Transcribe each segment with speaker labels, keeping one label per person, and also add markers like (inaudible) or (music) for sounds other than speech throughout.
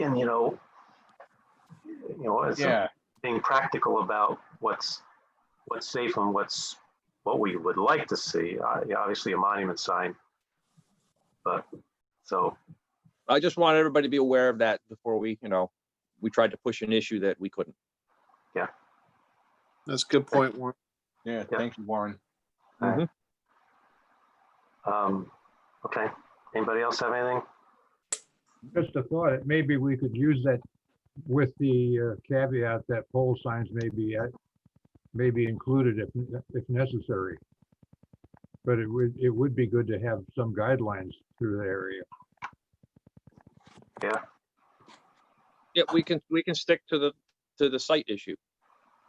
Speaker 1: and, you know, you know, it's
Speaker 2: Yeah,
Speaker 1: being practical about what's, what's safe and what's, what we would like to see. Uh, yeah, Obviously, a monument sign. But, so,
Speaker 3: I just want everybody to be aware of that before we, you know, we tried to push an issue that we couldn't.
Speaker 4: That's a good point, Warren.
Speaker 2: yeah,
Speaker 1: Yeah.
Speaker 2: thank you, Warren.
Speaker 1: um, okay. Anybody else have anything?
Speaker 5: Just a thought, that maybe we could use that with the uh, caveat that pole signs may be, uh, may be included if, if necessary. But it would, it would be good to have some guidelines through the area.
Speaker 3: Yeah, we can, we can stick to the, to the site issue.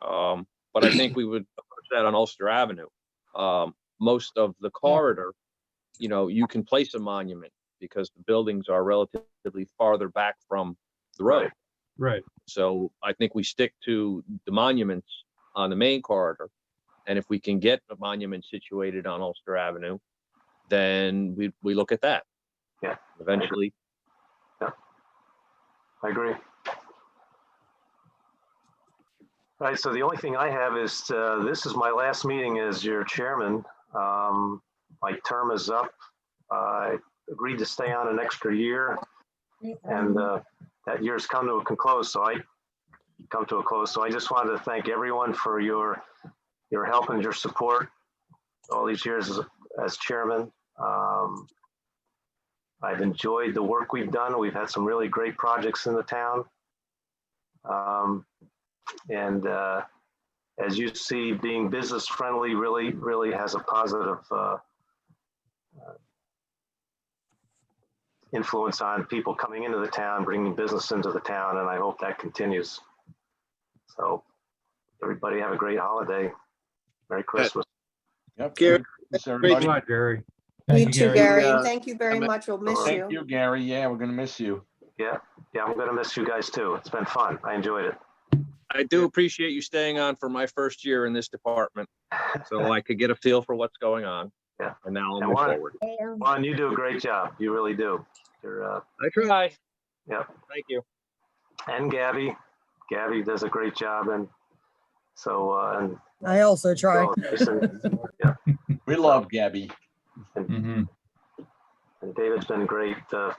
Speaker 3: Um, but I think we would approach that on Ulster Avenue. Um, most of the corridor, you know, you can place a monument because the buildings are relatively farther back from the road.
Speaker 5: Right,
Speaker 3: So I think we stick to the monuments on the main corridor. And if we can get a monument situated on Ulster Avenue, then we, we look at that.
Speaker 1: Yeah.
Speaker 3: Eventually,
Speaker 1: I agree. All right, so the only thing I have is, uh, this is my last meeting as your chairman. Um, My term is up. I agreed to stay on an extra year and uh, that year's come to a con- close, so I come to a close. So I just wanted to thank everyone for your, your help and your support all these years as- as chairman. Um, I've enjoyed the work we've done. We've had some really great projects in the town. Um, And uh, as you see, being business friendly really, really has a positive uh, uh, influence on people coming into the town, bringing business into the town, and I hope that continues. So everybody have a great holiday. Merry Christmas.
Speaker 2: Yep.
Speaker 4: Gary,
Speaker 2: Thanks,
Speaker 5: good
Speaker 2: everybody.
Speaker 5: luck, Gary.
Speaker 6: You too, Gary.
Speaker 4: Yeah.
Speaker 6: Thank you very
Speaker 4: Emma.
Speaker 6: much. We'll miss
Speaker 2: Thank
Speaker 6: you.
Speaker 2: you, Gary. Yeah, we're gonna miss you.
Speaker 1: Yeah, I'm going to miss you guys too. It's been fun. I enjoyed it.
Speaker 3: I do appreciate you staying on for my first year in this department. So I could get a feel for what's going on.
Speaker 1: Yeah.
Speaker 3: And now I'll
Speaker 1: And
Speaker 3: move
Speaker 1: what-
Speaker 3: forward.
Speaker 1: Juan, you do a great job. You really do. You're, uh,
Speaker 3: I try.
Speaker 1: Yeah.
Speaker 3: Thank you.
Speaker 1: and Gabby, Gabby does a great job and so, uh, and.
Speaker 7: I also try.
Speaker 1: Bill and Jason
Speaker 2: We love Gabby.
Speaker 1: And David's been great, uh,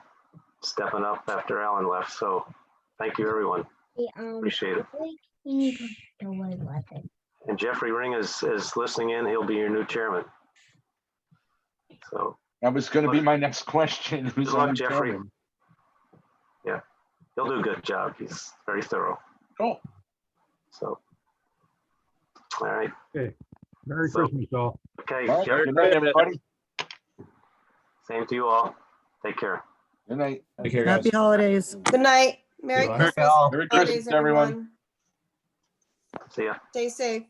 Speaker 1: stepping up after Alan left. So thank you, everyone. Appreciate it. And Jeffrey Ring is, is listening in. He'll be your new chairman. So
Speaker 2: That was gonna be my next question. (laughs) Who's
Speaker 1: Good luck,
Speaker 2: on the
Speaker 1: Jeffrey.
Speaker 2: phone?
Speaker 1: he'll do a good job. He's very thorough.
Speaker 2: Cool.
Speaker 1: So. All right.
Speaker 5: Merry
Speaker 1: So-
Speaker 5: Christmas, all.
Speaker 1: Okay.
Speaker 2: All right,
Speaker 1: Jeff,
Speaker 2: Good night, everybody.
Speaker 1: Same to you all. Take care.
Speaker 2: Good night.
Speaker 8: Take care, guys.
Speaker 7: Happy holidays.
Speaker 6: Good night. Merry Christmas.
Speaker 2: Merry
Speaker 6: Holidays,
Speaker 2: Christmas, everyone.
Speaker 1: See ya.
Speaker 6: Stay safe.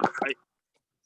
Speaker 1: Bye.